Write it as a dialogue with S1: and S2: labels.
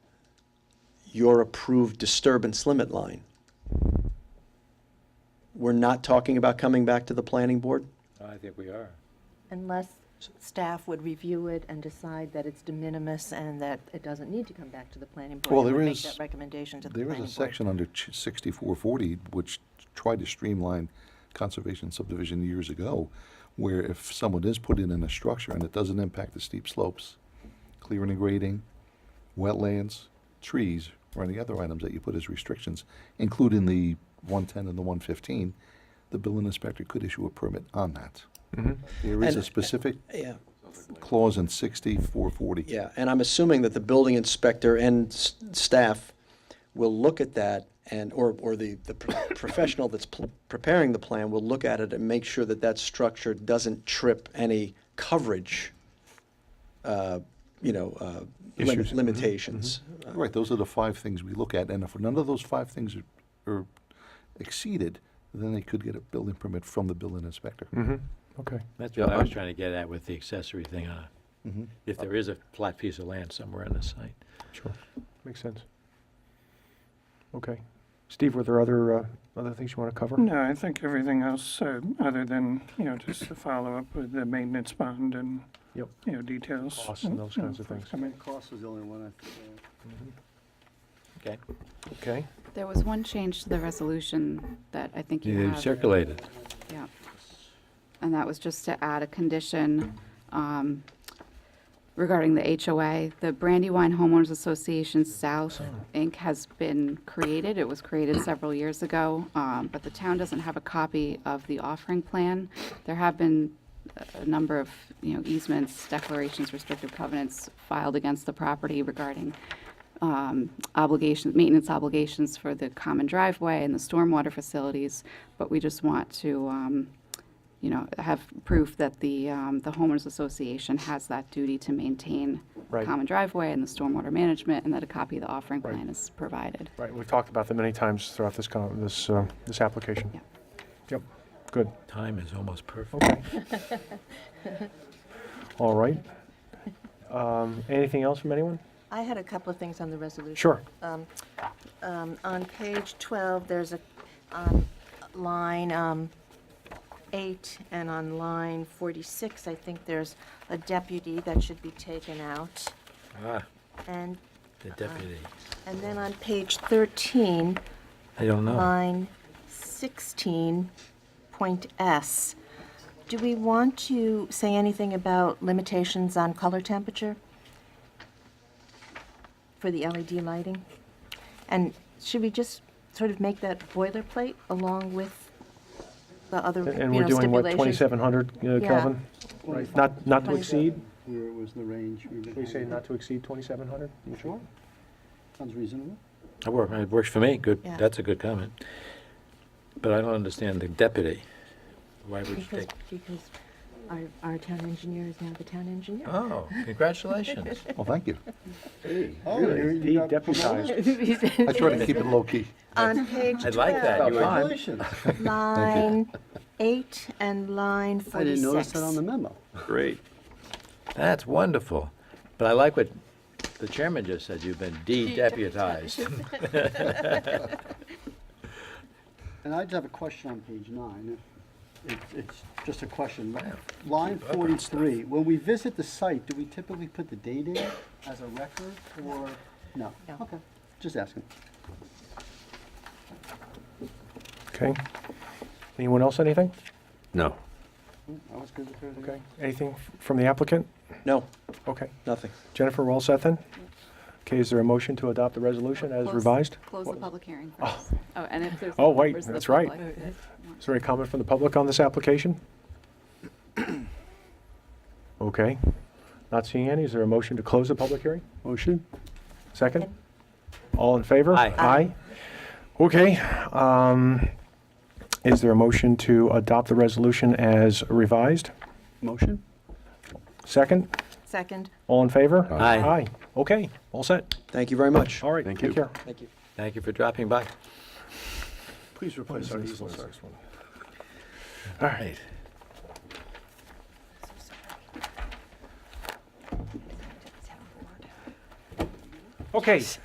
S1: your approved disturbance limit line. We're not talking about coming back to the planning board?
S2: I think we are.
S3: Unless staff would review it and decide that it's de minimis and that it doesn't need to come back to the planning board.
S4: Well,
S3: and
S4: there
S3: would
S4: is-
S3: Make that recommendation to the
S4: There
S3: planning
S4: is a
S3: board.
S4: section under sixty-four forty which tried to streamline conservation subdivision years ago, where if someone is put in in a structure and it doesn't impact the steep slopes, clearing and grading, wetlands, trees, or any other items that you put as restrictions, including the one-ten and the one-fifteen, the building inspector could issue a permit on that. There is a
S1: And-
S4: specific
S1: Yeah.
S4: clause in sixty-four forty.
S1: Yeah, and I'm assuming that the building inspector and s- staff will look at that and, or, or the, the pro- professional that's pl- preparing the plan will look at it and make sure that that structure doesn't trip any coverage, uh, you know, uh, lim-
S5: Issues. Mhm,
S1: limitations. Uh,
S4: Right, those are the five things we look at, and if none of those five things are, are exceeded, then they could get a building permit from the building inspector.
S5: Okay.
S2: That's
S5: Yeah,
S2: what I was
S5: I'm-
S2: trying to get at with the accessory thing on,
S4: Mhm.
S1: Uh,
S2: if there is a flat piece of land somewhere on the site.
S5: Sure. Makes sense. Okay. Steve, were there other, uh, other things you want to cover?
S6: No, I think everything else, uh, other than, you know, just the follow-up with the maintenance bond and,
S5: Yep.
S6: you know, details. Mm-hmm.
S5: Costs and those
S6: you know,
S5: kinds of things.
S6: forthcoming.
S7: Cost was the only one I,
S2: Okay.
S5: Okay.
S8: There was one change to the resolution that I think you
S2: You
S8: have.
S2: circulated.
S8: Yeah. And that was just to add a condition um, regarding the HOA. The Brandywine Homeowners Association South, Inc. has been created. It was created several years ago, um, but the town doesn't have a copy of the offering plan. There have been a- a number of, you know, easements, declarations, restrictive covenants filed against the property regarding um, obligations, maintenance obligations for the common driveway and the stormwater facilities, but we just want to, um, you know, have proof that the, um, the homeowners association has that duty to maintain the
S5: Right.
S8: common driveway and the stormwater management, and that a copy of the offering
S5: Right.
S8: plan is provided.
S5: Right, we've talked about them many times throughout this, con- this, uh, this application.
S8: Yeah.
S5: Yep, good.
S2: Time is almost perfect.
S5: Okay. All right. Um, Anything else from anyone?
S3: I had a couple of things on the resolution.
S5: Sure.
S3: Um, On page 12, there's a, on line um, 8 and on line 46, I think there's a deputy that should be taken out.
S2: Ah,
S3: And,
S2: the deputy.
S3: and then on page 13,
S2: I don't know.
S3: line 16, point S. Do we want to say anything about limitations on color temperature for the LED lighting? And should we just sort of make that boilerplate along with the other, you know,
S5: And- And
S3: stipulations?
S5: we're doing what, 2,700 uh,
S3: Yeah.
S5: Kelvin?
S7: Right.
S5: Not, not to
S3: Twenty-
S5: exceed?
S7: where it was in the range.
S5: We say not to exceed 2,700? You sure?
S7: Sounds reasonable.
S2: That worked, it works for me. Good,
S3: Yeah.
S2: that's a good comment. But I don't understand the deputy. Why would you
S3: Because,
S2: take?
S3: because our, our town engineer is now the town engineer.
S2: Oh, congratulations.
S4: Well, thank you.
S7: Oh,
S5: Be deputized.
S4: I try to keep it low-key.
S3: On page
S2: I like that. You were-
S7: Congratulations. I
S3: line 8 and line 46.
S7: didn't notice that on the memo.
S5: Great.
S2: That's wonderful. But I like what the chairman just said, you've been de-deputized.
S7: And I just have a question on page nine. It's, it's just a question. Line forty-three, when we visit the site, do we typically put the date in as a record or, no?
S3: No.
S7: Okay, just asking.
S5: Okay. Anyone else, anything?
S2: No.
S7: I was good with her.
S5: Okay. Anything f- from the applicant?
S1: No,
S5: Okay.
S1: nothing.
S5: Jennifer, we're all set then? Okay, is there a motion to adopt the resolution as
S8: Close-
S5: revised?
S8: Close the public hearing first. Oh, and if there's.
S5: Oh, wait,
S8: members of the
S5: that's right.
S8: public that
S5: Is there any comment from the public on this application? Okay. Not seeing any. Is there a motion to close the public hearing?
S7: Motion?
S5: Second? All in favor?
S2: Aye.
S5: Aye. Okay. um, Is there a motion to adopt the resolution as revised?
S7: Motion?
S5: Second?
S3: Second.
S5: All in favor?
S2: Aye.
S5: Aye. Okay, all set.
S1: Thank you very much.
S5: All right,
S4: Thank
S5: take
S4: you.
S5: care.
S1: Thank you.
S2: Thank you for dropping by.
S4: Please replace our easel, sir.
S2: All right.
S5: Okay,